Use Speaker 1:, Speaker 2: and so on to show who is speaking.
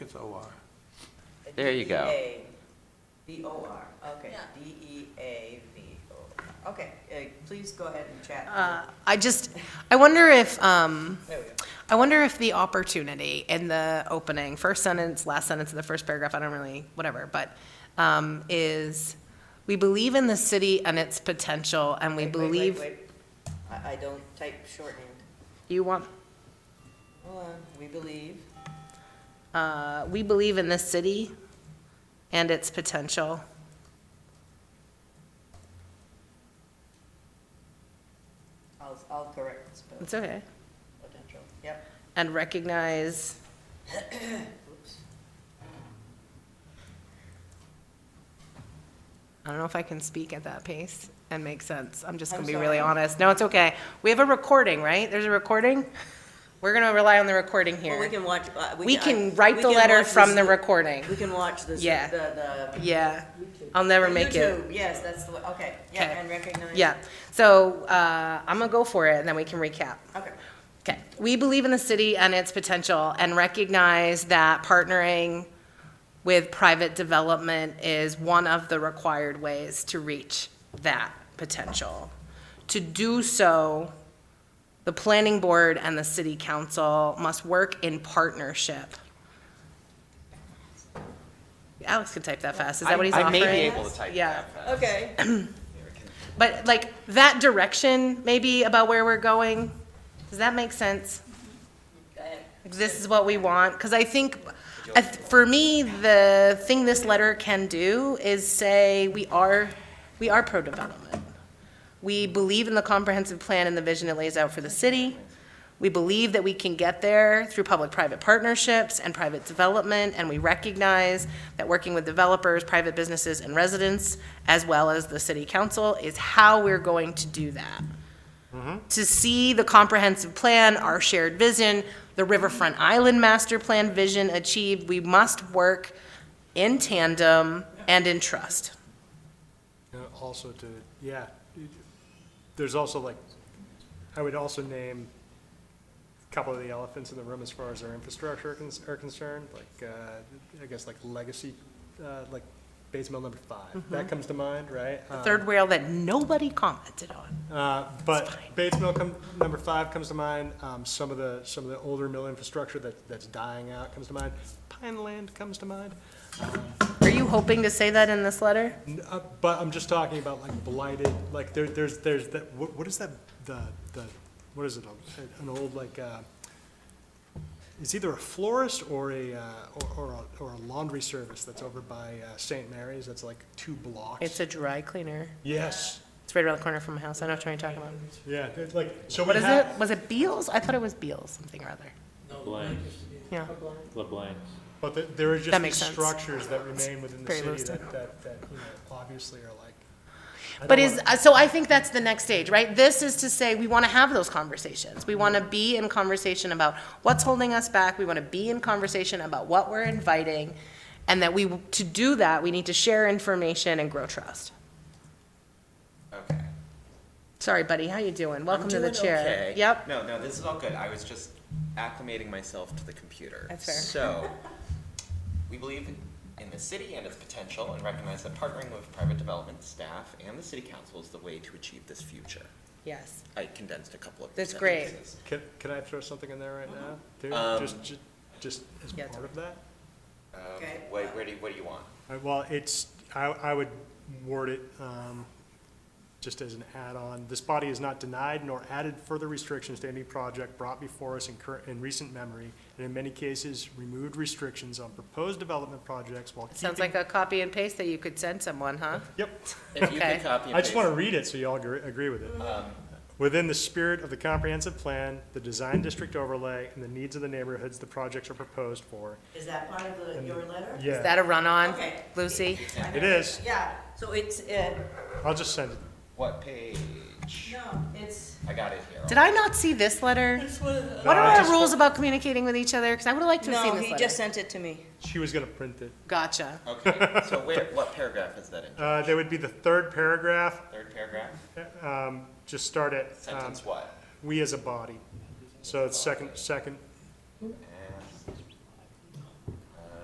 Speaker 1: it's OR.
Speaker 2: There you go.
Speaker 3: E D-E-A-V-O-R, okay, E
Speaker 4: Yeah.
Speaker 3: D-E-A-V-O-R, okay, uh, please go ahead and chat.
Speaker 5: Uh, I just, I wonder if, um,
Speaker 3: There we go.
Speaker 5: I wonder if the opportunity in the opening, first sentence, last sentence of the first paragraph, I don't really, whatever, but, um, is, we believe in the city and its potential, and we
Speaker 3: Wait, wait, wait,
Speaker 5: believe,
Speaker 3: wait. I, I don't type shorthand.
Speaker 5: you want,
Speaker 3: Hold on, we believe,
Speaker 5: uh, we believe in this city and its potential.
Speaker 3: I'll, I'll correct the spell,
Speaker 5: It's okay.
Speaker 3: potential, yep,
Speaker 5: And recognize
Speaker 3: oops.
Speaker 5: I don't know if I can speak at that pace and make sense. I'm just
Speaker 3: I'm
Speaker 5: going to be really
Speaker 3: sorry.
Speaker 5: honest. No, it's okay. We have a recording, right? There's a recording? We're going to rely on the recording
Speaker 3: Well, we
Speaker 5: here.
Speaker 3: can watch, uh, we.
Speaker 5: We
Speaker 3: I-
Speaker 5: can write
Speaker 3: we
Speaker 5: the
Speaker 3: can
Speaker 5: letter
Speaker 3: watch
Speaker 5: from
Speaker 3: this-
Speaker 5: the recording.
Speaker 3: We can watch this,
Speaker 5: Yeah.
Speaker 3: the, the.
Speaker 5: Yeah. I'll never make it.
Speaker 3: YouTube, yes, that's the, way- okay, yeah,
Speaker 5: Okay.
Speaker 3: and recognize.
Speaker 5: Yeah. So uh, I'm going to go for it and then we can recap.
Speaker 3: Okay,
Speaker 5: Okay. We believe in the city and its potential and recognize that partnering with private development is one of the required ways to reach that potential. To do so, the planning board and the city council must work in partnership. Alex could type that fast. Is that what he's
Speaker 2: I-
Speaker 5: offering?
Speaker 2: I may be able to type
Speaker 5: Yeah.
Speaker 2: that fast.
Speaker 3: okay.
Speaker 5: But like that direction maybe about where we're going, does that make sense? Like, This is what we want, because I think, I th- for me, the thing this letter can do is say, we are, we are pro-development. We believe in the comprehensive plan and the vision it lays out for the city. We believe that we can get there through public-private partnerships and private development, and we recognize that working with developers, private businesses, and residents, as well as the city council, is how we're going to do that. To see the comprehensive plan, our shared vision, the Riverfront Island Master Plan vision achieved, we must work in tandem and in trust.
Speaker 1: And also to, yeah, there's also like, I would also name a couple of the elephants in the room as far as our infrastructure cons- are concerned, like, uh, I guess like legacy, uh, like base mill number five. That comes to mind, right? Um,
Speaker 5: Third rail that nobody commented on.
Speaker 1: Uh, But Bates Mill, come- number five comes to mind. Um, Some of the, some of the older mill infrastructure that, that's dying out comes to mind. Pine Land comes to mind.
Speaker 5: Are you hoping to say that in this letter?
Speaker 1: N- uh, But I'm just talking about like blighted, like there, there's, there's that, what, what is that, the, the, what is it? a- An old like, uh, it's either a florist or a, uh, or, or a- or a laundry service that's over by uh, St. Mary's. That's like two blocks.
Speaker 5: It's a dry cleaner.
Speaker 1: Yes,
Speaker 5: It's right around the corner from my house. I know what you're talking about.
Speaker 1: yeah, it's like, so we
Speaker 5: What is
Speaker 1: have-
Speaker 5: it? Was it Beals? I thought it was Beals, something or other.
Speaker 6: LeBlanc,
Speaker 5: Yeah.
Speaker 6: LeBlanc.
Speaker 1: But th- there are just
Speaker 5: That
Speaker 1: these
Speaker 5: makes sense.
Speaker 1: structures that remain within the
Speaker 5: very
Speaker 1: city
Speaker 5: loose.
Speaker 1: that, that, that, you know, obviously are like. I
Speaker 5: But
Speaker 1: don't
Speaker 5: is,
Speaker 1: wanna-
Speaker 5: uh, so I think that's the next stage, right? This is to say, we want to have those conversations. We want to be in conversation about what's holding us back. We want to be in conversation about what we're inviting. And that we, to do that, we need to share information and grow trust.
Speaker 2: Okay.
Speaker 5: Sorry, buddy, how you doing? Welcome to
Speaker 2: I'm
Speaker 5: the
Speaker 2: doing
Speaker 5: chair.
Speaker 2: okay.
Speaker 5: Yep.
Speaker 2: No, no, this is all good. I was just acclimating myself to the computer.
Speaker 5: That's fair.
Speaker 2: So, we believe in the city and its potential and recognize that partnering with private development staff and the city council is the way to achieve this future.
Speaker 5: Yes.
Speaker 2: I condensed a couple of.
Speaker 5: That's great.
Speaker 2: sentences.
Speaker 1: Can, can I throw something in there right now? Dude,
Speaker 2: Um,
Speaker 1: just, ju- just as
Speaker 5: Yeah, it's
Speaker 1: part of that?
Speaker 2: Um,
Speaker 3: Okay.
Speaker 2: Where, where do, you- what do you want?
Speaker 1: Uh, Well, it's, I, I would word it, um, just as an add-on. This body has not denied nor added further restrictions to any project brought before us in current, in recent memory, and in many cases, removed restrictions on proposed development projects while keeping.
Speaker 5: Sounds like a copy and paste that you could send someone, huh?
Speaker 1: Yep.
Speaker 2: If you
Speaker 5: Okay.
Speaker 2: could copy and paste.
Speaker 1: I just want to read it so you all agree, agree with it. Within the spirit of the comprehensive plan, the design district overlay, and the needs of the neighborhoods the projects are proposed for.
Speaker 3: Is that part of the, your letter?
Speaker 5: Is that a run-on,
Speaker 3: Okay.
Speaker 5: Lucy?
Speaker 1: It is.
Speaker 3: Yeah, so it's, uh,
Speaker 1: I'll just send it.
Speaker 2: What page?
Speaker 3: no, it's,
Speaker 2: I got it here.
Speaker 5: Did I not see this letter?
Speaker 3: it's one of the.
Speaker 5: What
Speaker 1: No,
Speaker 5: are
Speaker 1: I
Speaker 5: our
Speaker 1: just-
Speaker 5: rules about communicating with each other? Because I would have liked to have seen
Speaker 3: No,
Speaker 5: this
Speaker 3: he
Speaker 5: letter.
Speaker 3: just sent it to me.
Speaker 1: She was gonna print it.
Speaker 5: Gotcha.
Speaker 2: Okay, so where, what paragraph is that in?
Speaker 1: Uh, there would be the third paragraph,
Speaker 2: Third paragraph?
Speaker 1: um, just start at, um,
Speaker 2: Sentence what?
Speaker 1: we as a body. So it's second, second,